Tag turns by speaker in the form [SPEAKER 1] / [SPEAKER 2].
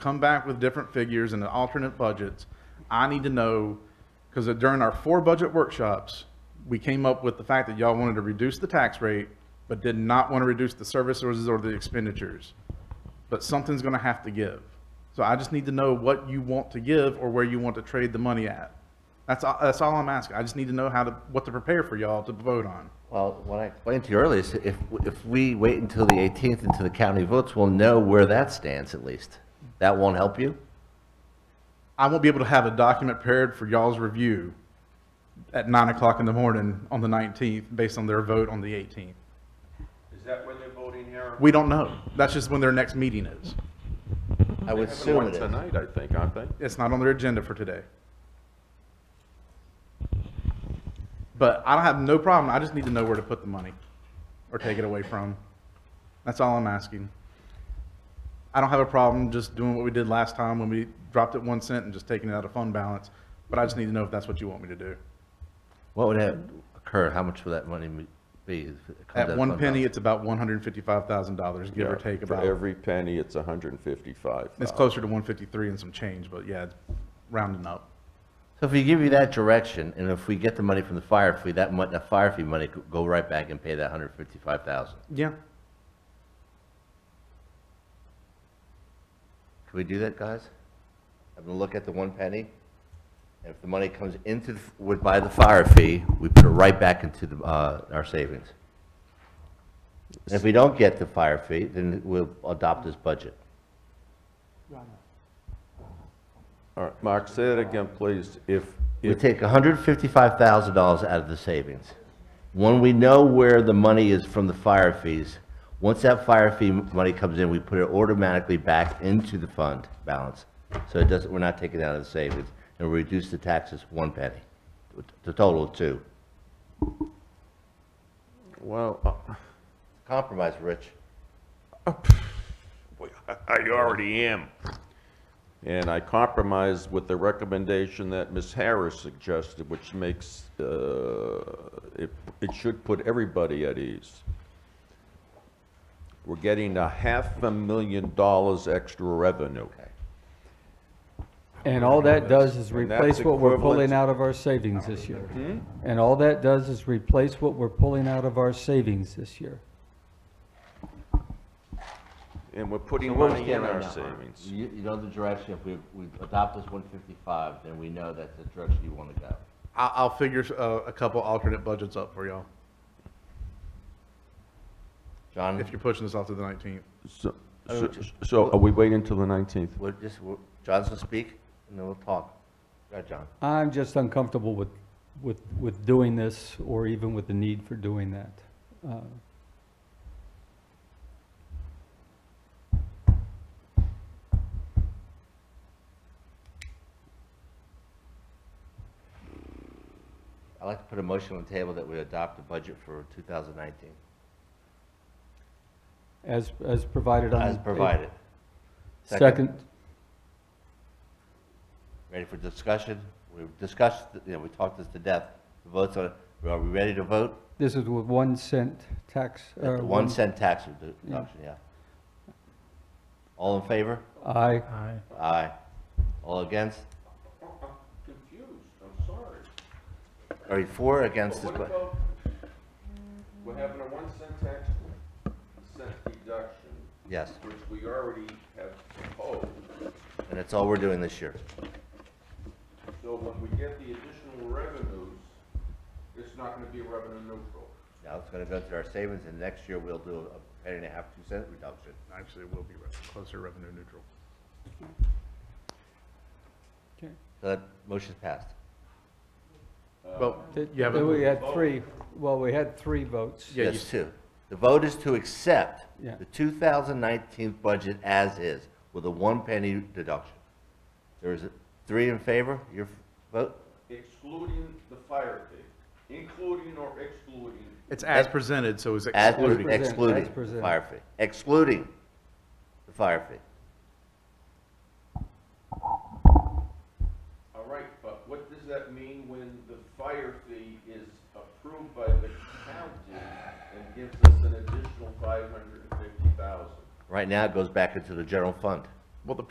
[SPEAKER 1] come back with different figures and alternate budgets. I need to know, because during our four budget workshops, we came up with the fact that y'all wanted to reduce the tax rate, but did not want to reduce the services or the expenditures. But something's gonna have to give. So I just need to know what you want to give or where you want to trade the money at. That's, all- that's all I'm asking. I just need to know how to, what to prepare for y'all to vote on.
[SPEAKER 2] Well, what I explained to you earlier is if, if we wait until the 18th until the county votes, we'll know where that stands at least. That won't help you?
[SPEAKER 1] I won't be able to have a document paired for y'all's review at nine o'clock in the morning on the nineteenth, based on their vote on the eighteenth.
[SPEAKER 3] Is that when they're voting here?
[SPEAKER 1] We don't know. That's just when their next meeting is. Mm-hmm.
[SPEAKER 2] I would
[SPEAKER 3] Having
[SPEAKER 2] assume
[SPEAKER 3] one
[SPEAKER 2] it is.
[SPEAKER 3] Tonight, I think, aren't they?
[SPEAKER 1] It's not on their agenda for today. But I don't have no problem. I just need to know where to put the money or take it away from. That's all I'm asking. I don't have a problem just doing what we did last time when we dropped it one cent and just taking it out of fund balance. But I just need to know if that's what you want me to do.
[SPEAKER 2] What would that occur? How much would that money be? if it comes out
[SPEAKER 1] At
[SPEAKER 2] of
[SPEAKER 1] one
[SPEAKER 2] fund
[SPEAKER 1] penny,
[SPEAKER 2] balance?
[SPEAKER 1] it's about one hundred and fifty-five thousand dollars, give or take
[SPEAKER 3] For
[SPEAKER 1] about.
[SPEAKER 3] every penny, it's 155.
[SPEAKER 1] It's closer to one fifty-three and some change, but yeah, rounding up.
[SPEAKER 2] So if we give you that direction, and if we get the money from the fire fee, that mon, that fire fee money could go right back and pay that 155,000.
[SPEAKER 1] Yeah,
[SPEAKER 2] Can we do that, guys? I'm gonna look at the one penny, and if the money comes into, the- would buy the fire fee, we put it right back into the, uh, our savings. And if we don't get the fire fee, then we'll adopt this budget.
[SPEAKER 3] All right, Mark, say that again, please. If,
[SPEAKER 2] We
[SPEAKER 3] if,
[SPEAKER 2] take hundred fifty-five thousand dollars out of the savings. When we know where the money is from the fire fees, once that fire fee money comes in, we put it automatically back into the fund balance. So it doesn't, we're not taking it out of the savings, and we reduce the taxes one penny, the total of two.
[SPEAKER 3] well, uh,
[SPEAKER 2] Compromise, Rich.
[SPEAKER 3] I already am. And I compromised with the recommendation that Ms. Harris suggested, which makes, uh, it, it should put everybody at ease. We're getting a half a million dollars extra revenue.
[SPEAKER 4] And all that does is
[SPEAKER 3] And that's
[SPEAKER 4] replace what we're
[SPEAKER 3] equivalent-
[SPEAKER 4] pulling out of our savings this year. And all that does is replace what we're pulling out of our savings this year.
[SPEAKER 3] And we're putting money in our savings.
[SPEAKER 2] You, you know the direction, if we, we adopt this one fifty-five, then we know that's the direction you wanna go.
[SPEAKER 1] I, I'll figure uh, a couple alternate budgets up for y'all,
[SPEAKER 2] John,
[SPEAKER 1] if you're pushing this off to the nineteenth.
[SPEAKER 3] So,
[SPEAKER 2] I
[SPEAKER 3] so-
[SPEAKER 2] would just-
[SPEAKER 3] so are we waiting till the 19th?
[SPEAKER 2] we're just, we're, John's gonna speak, and then we'll talk. Go ahead, John.
[SPEAKER 4] I'm just uncomfortable with, with, with doing this or even with the need for doing that. Uh,
[SPEAKER 2] I'd like to put a motion on the table that we adopt the budget for 2019,
[SPEAKER 4] As, as provided on.
[SPEAKER 2] as provided.
[SPEAKER 4] Second,
[SPEAKER 2] Ready for discussion? We discussed, you know, we talked this to death. The votes on, are we ready to vote?
[SPEAKER 4] this is with one cent tax. uh,
[SPEAKER 2] The one cent tax reduction, yeah. All in favor?
[SPEAKER 4] Aye.
[SPEAKER 2] Aye. All against?
[SPEAKER 3] Confused, I'm sorry.
[SPEAKER 2] Are you for or against this? bu-
[SPEAKER 3] we're having a one cent tax, cent deduction,
[SPEAKER 2] Yes,
[SPEAKER 3] which we already have proposed.
[SPEAKER 2] and that's all we're doing this year.
[SPEAKER 3] So when we get the additional revenues, it's not gonna be revenue neutral.
[SPEAKER 2] Now it's going to go to our savings, and next year we'll do a penny and a half, two cent reduction.
[SPEAKER 1] Actually, it will be re- closer revenue neutral.
[SPEAKER 4] Okay.
[SPEAKER 2] So that motion's passed.
[SPEAKER 1] Well,
[SPEAKER 4] Th-
[SPEAKER 1] you haven't-
[SPEAKER 4] We had three, well, we had three votes.
[SPEAKER 1] Yeah, you-
[SPEAKER 2] That's two. The vote is to accept
[SPEAKER 4] Yeah.
[SPEAKER 2] the 2019 budget as is with a one penny deduction. There is a- three in favor, your f- vote?
[SPEAKER 5] excluding the fire fee, including or excluding,
[SPEAKER 1] it's as presented, so it's
[SPEAKER 2] As
[SPEAKER 1] excluded.
[SPEAKER 4] presented, as
[SPEAKER 2] Excluding the
[SPEAKER 4] presented.
[SPEAKER 2] fire fee, excluding the fire fee.
[SPEAKER 5] all right, but what does that mean when the fire fee is approved by the county and gives us an additional five hundred and fifty thousand?
[SPEAKER 2] Right now, it goes back into the general fund.
[SPEAKER 1] Well, the